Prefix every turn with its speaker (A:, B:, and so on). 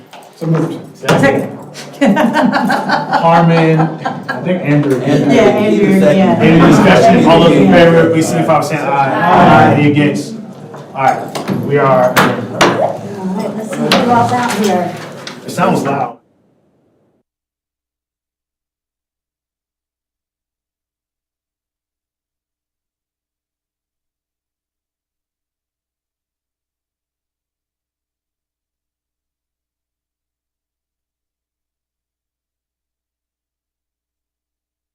A: So moved.
B: Second.
A: Harmon, I think Andrew.
C: Andrew.
B: Yeah, Andrew, yeah.
A: Any discussion, all those in
B: Yeah.
A: favor, please signify by saying aye. Aye. Any against? All right, we are,
B: All right, let's see what about out here.
A: it sounds loud.